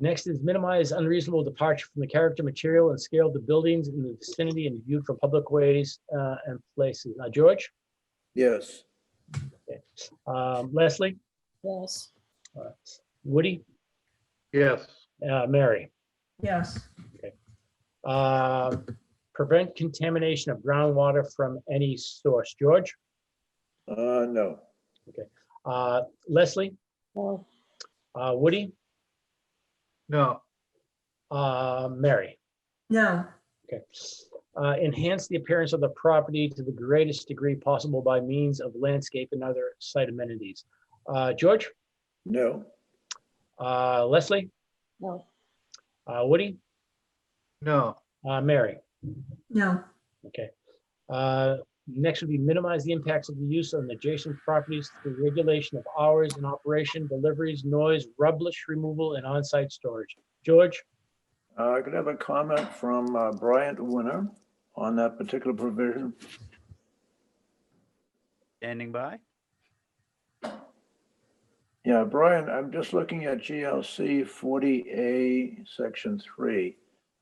Next is minimize unreasonable departure from the character, material, and scale of the buildings in the vicinity and viewed from public ways uh, and places. Uh, George? yes, Um, Leslie? yes, Uh, Woody? yes, Uh, Mary? yes, Um, Prevent contamination of groundwater from any source. George? uh, no, Uh, Leslie? no, Uh, Woody? no, Uh, Mary? no, Okay. Uh, Enhance the appearance of the property to the greatest degree possible by means of landscape and other site amenities. Uh, George, no, uh, Leslie, no, uh, Woody, no, uh, Mary. no, Okay. Uh, Next would be minimize the impacts of the use on adjacent properties through regulation of hours and operation, deliveries, noise, rubbish removal, and on-site storage. George, Uh, I could have a comment from uh, Bryant Winter on that particular provision. Standing by? Yeah, Brian, I'm just looking at GLC 40A, Section 3.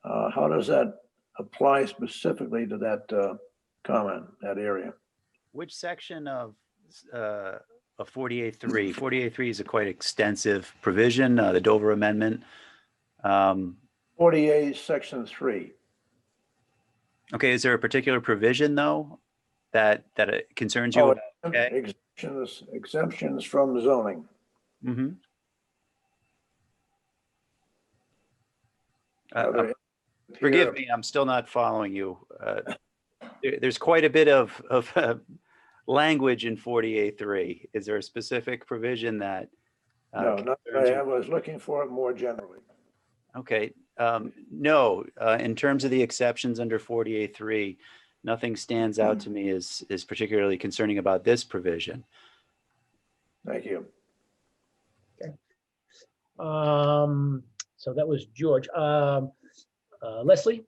Uh, How does that apply specifically to that uh, comment, that area? Which section of, uh, of 48-3? 48-3 is a quite extensive provision, uh, the Dover Amendment. Um, 40A, Section 3. okay, is there a particular provision though that, that it concerns you? Oh, about? okay. Exemptions, exemptions from zoning. Mhm. Uh, Now, uh, there- Forgive here- me, I'm still not following you. Uh, there- There's quite a bit of, of uh, language in 48-3. Is there a specific provision that? uh, No, not, concerns you? I was looking for it more generally. Okay, um, no, uh, in terms of the exceptions under 48-3, nothing stands out to me as, is particularly concerning about this provision. Thank you. um, so that was George. Um, uh, Leslie?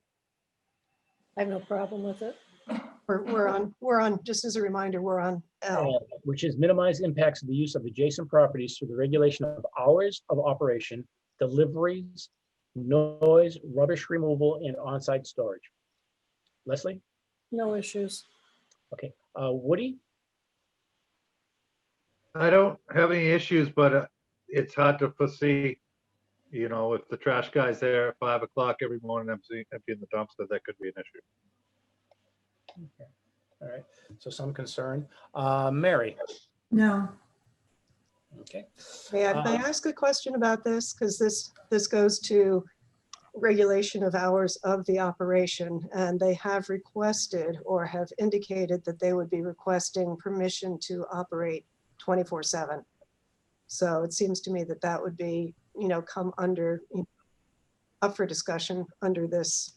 I have no problem with it. We're, we're on, we're on, just as a reminder, we're on L. uh, which is minimize impacts of the use of adjacent properties through the regulation of hours of operation, deliveries, noise, rubbish removal, and on-site storage. Leslie, No issues. uh, Woody, I don't have any issues, but uh, it's hard to foresee. You know, if the trash guy's there at five o'clock every morning emptying, emptying the dumpster, that could be an issue. all right, so some concern. Uh, Mary? no, Okay. May I, may I ask a question about this? Because this, this goes to regulation of hours of the operation, and they have requested or have indicated that they would be requesting permission to operate 24/7. So it seems to me that that would be, you know, come under, you know, up for discussion under this,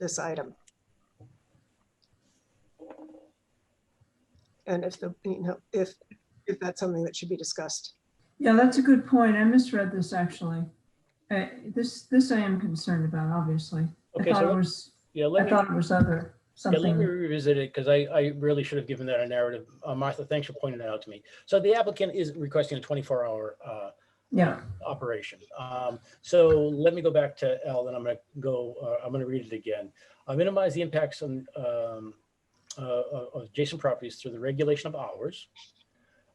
this item. And if the, you know, if, if that's something that should be discussed. yeah, that's a good point. I misread this actually. Uh, This, this I am concerned about, obviously. I Okay, thought it so, was, yeah, I let me, thought it was other, yeah, let me something. revisit it, because I, I really should have given that a narrative. Uh, Martha, thanks for pointing that out to me. So the applicant is requesting a twenty-four hour, uh, Yeah, operation. Um, So let me go back to L, and I'm going to go, uh, I'm going to read it again. Uh, Minimize the impacts on um, uh, of of adjacent properties through the regulation of hours,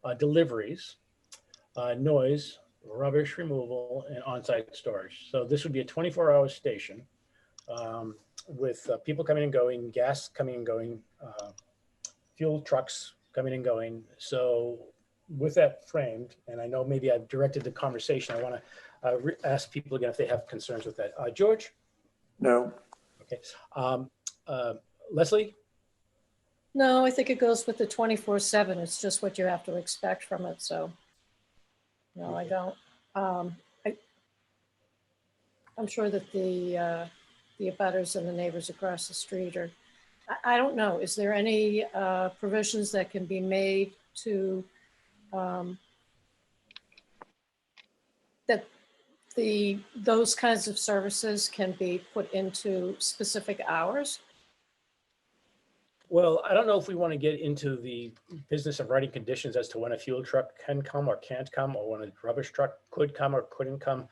uh, deliveries, uh, noise, rubbish removal, and on-site storage. So this would be a 24-hour station um, with uh, people coming and going, gas coming and going, uh, fuel trucks coming and going. So with that framed, and I know maybe I've directed the conversation, I want to ask people again if they have concerns with that. Uh, George, No, um, uh, Leslie, No, I think it goes with the twenty-four seven. It's just what you have to expect from it, so. No, I don't. Um, I, I'm sure that the, uh, the abutters and the neighbors across the street are, I, I don't know. Is there any, uh, provisions that can be made to, um, that the, those kinds of services can be put into specific hours? well, I don't know if we want to get into the business of writing conditions as to when a fuel truck can come or can't come, or when a rubbish truck could come or couldn't come.